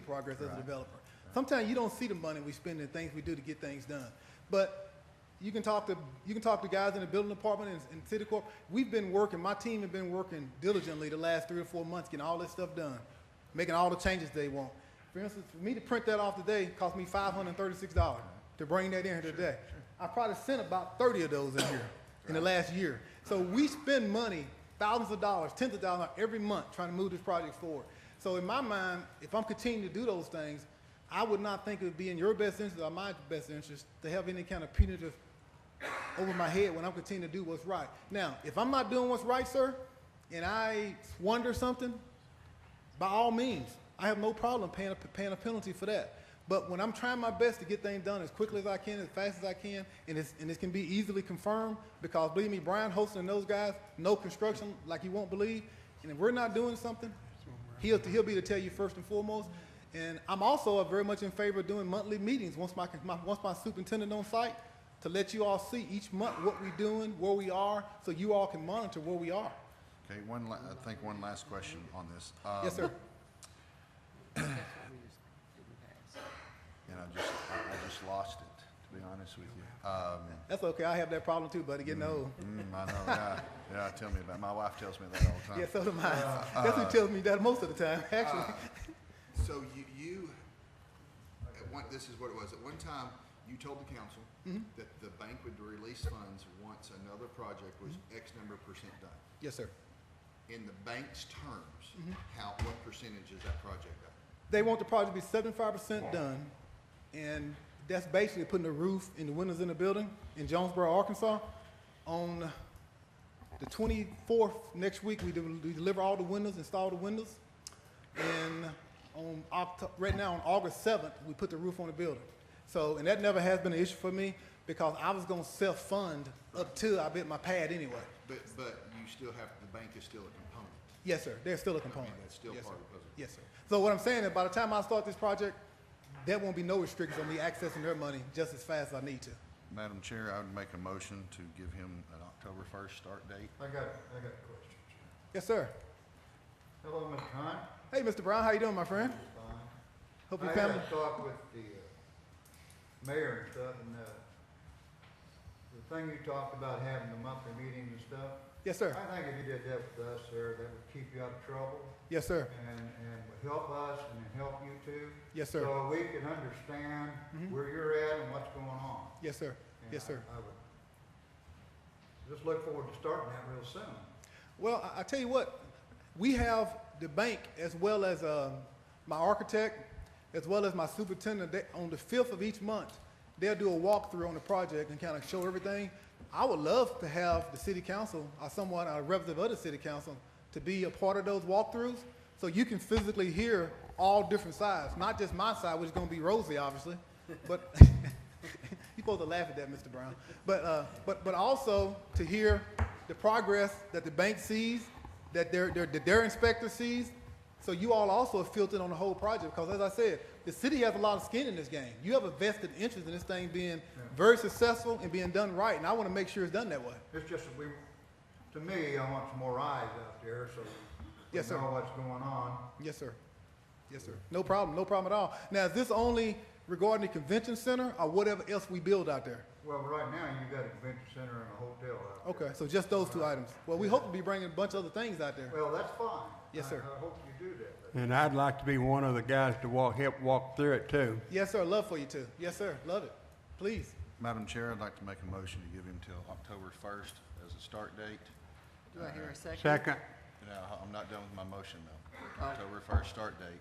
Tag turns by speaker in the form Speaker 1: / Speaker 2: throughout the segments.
Speaker 1: progress as a developer. Sometimes you don't see the money we spend and things we do to get things done. But you can talk to, you can talk to guys in the building department and, and city corp. We've been working, my team have been working diligently the last three or four months getting all this stuff done, making all the changes they want. For instance, for me to print that off today cost me five hundred and thirty-six dollars to bring that in here today. I probably sent about thirty of those in here in the last year. So we spend money, thousands of dollars, tens of thousands of dollars every month trying to move this project forward. So in my mind, if I'm continuing to do those things, I would not think it would be in your best interest or my best interest to have any kind of punitive over my head when I'm continuing to do what's right. Now, if I'm not doing what's right, sir, and I wonder something, by all means, I have no problem paying a, paying a penalty for that. But when I'm trying my best to get things done as quickly as I can, as fast as I can, and, it's, and it can be easily confirmed, because believe me, Brian Holston and those guys know construction like you won't believe. And if we're not doing something, he'll, he'll be to tell you first and foremost. And I'm also very much in favor of doing monthly meetings once my, my, once my superintendent on site to let you all see each month what we're doing, where we are, so you all can monitor where we are.
Speaker 2: Okay, one, la- I think one last question on this.
Speaker 1: Yes,
Speaker 2: Um,
Speaker 1: sir.
Speaker 2: And I just, I I just lost it, to be honest with you. Um,
Speaker 1: That's okay. I have that problem too, buddy. Getting old.
Speaker 2: mm, I know, yeah, yeah, tell me about, it. my wife tells me that all the time.
Speaker 1: Yeah, so do mine. That's who tells me that most of the time, actually.
Speaker 3: So you, you, at one, this is what it was, at one time, you told the council
Speaker 1: Mm-hmm.
Speaker 3: that the bank would release funds once another project was
Speaker 1: Mm-hmm.
Speaker 3: X number of percent done.
Speaker 1: yes, sir.
Speaker 3: In the bank's
Speaker 1: Mm-hmm.
Speaker 3: terms, how, what percentage is that project done?
Speaker 1: They want the project to be seventy-five percent done, and that's basically putting the roof and the windows in the building in Jonesboro, Arkansas. On the twenty-fourth next week, we do- we deliver all the windows, install the windows, and on Oct- right now on August seventh, we put the roof on the building. So, and that never has been an issue for me because I was gonna self-fund up to I bit my pad anyway.
Speaker 3: But, but you still have, the bank is still a component.
Speaker 1: Yes, sir. There's still a component.
Speaker 3: that's still
Speaker 1: Yes,
Speaker 3: part
Speaker 1: sir.
Speaker 3: of the puzzle.
Speaker 1: Yes, sir. So what I'm saying is by the time I start this project, there won't be no restrictions on me accessing their money just as fast as I need to.
Speaker 2: Madam Chair, I would make a motion to give him an October first start date.
Speaker 4: I got, I got a question.
Speaker 1: Yes, sir.
Speaker 4: Hello, Mr. Hunt.
Speaker 1: Hey, Mr. Brown, how you doing, my friend?
Speaker 4: Fine.
Speaker 1: Hope your
Speaker 4: I had
Speaker 1: family.
Speaker 4: a talk with the uh, mayor and stuff, and, uh, the thing you talked about having the monthly meetings and stuff.
Speaker 1: Yes, sir.
Speaker 4: I think if you did that with us, sir, that would keep you out of trouble
Speaker 1: Yes, sir.
Speaker 4: and, and would help us and it'd help you too.
Speaker 1: Yes, sir.
Speaker 4: So we can understand where you're at and what's going on.
Speaker 1: Yes, sir.
Speaker 4: And
Speaker 1: Yes,
Speaker 4: I-
Speaker 1: sir.
Speaker 4: I would just look forward to starting that real soon.
Speaker 1: Well, I, I tell you what, we have the bank as well as um, my architect, as well as my superintendent. They, on the fifth of each month, they'll do a walkthrough on the project and kind of show everything. I would love to have the city council or someone, a representative of the city council, to be a part of those walkthroughs so you can physically hear all different sides, not just my side, which is going to be rosy, obviously, but You're supposed to laugh at that, Mr. Brown. But, uh, but, but also to hear the progress that the bank sees, that their, their, that their inspector sees. So you all also are filtered on the whole project because as I said, the city has a lot of skin in this game. You have a vested interest in this thing being very successful and being done right. And I want to make sure it's done that way.
Speaker 4: It's just that we, to me, I want some more eyes out there, so we
Speaker 1: Yes, sir.
Speaker 4: know what's going on.
Speaker 1: Yes, sir. Yes, sir. No problem. No problem at all. Now, is this only regarding the convention center or whatever else we build out there?
Speaker 4: Well, right now, you've got a convention center and a hotel out there.
Speaker 1: Okay, so just those two items. Well, we hope to be bringing a bunch of other things out there.
Speaker 4: Well, that's fine.
Speaker 1: Yes,
Speaker 4: I-
Speaker 1: sir.
Speaker 4: I hope you do that, but
Speaker 5: And I'd like to be one of the guys to walk, help walk through it too.
Speaker 1: Yes, sir. Love for you too. Yes, sir. Love it. Please.
Speaker 2: Madam Chair, I'd like to make a motion to give him till October first as a start date.
Speaker 6: Do I hear a second?
Speaker 5: Second,
Speaker 2: Now, I'm not done with my motion though. October first start date.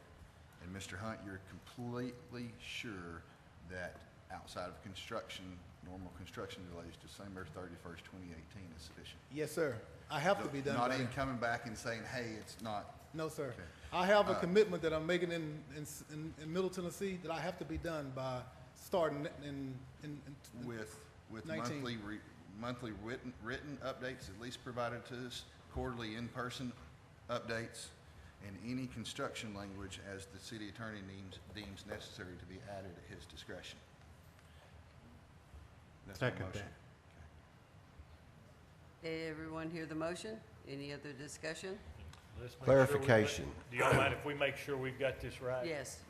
Speaker 2: And Mr. Hunt, you're completely sure that outside of construction, normal construction delays, December thirty-first, twenty eighteen is sufficient?
Speaker 1: Yes, sir. I have to be done.
Speaker 2: Not
Speaker 1: by
Speaker 2: even
Speaker 1: then.
Speaker 2: coming back and saying, hey, it's not,
Speaker 1: No, sir.
Speaker 2: Okay.
Speaker 1: I have a commitment that I'm making in, in, in, in Middle Tennessee that I have to be done by starting in, in, in
Speaker 2: with, with
Speaker 1: 19.
Speaker 2: monthly, re- monthly written, written updates at least provided to us, quarterly in-person updates, and any construction language as the city attorney deems, deems necessary to be added at his discretion. That's my
Speaker 5: Second
Speaker 2: motion.
Speaker 5: that.
Speaker 6: Did everyone hear the motion? Any other discussion?
Speaker 7: Clarification. Do y'all mind if we make sure we've got this right?
Speaker 6: Yes.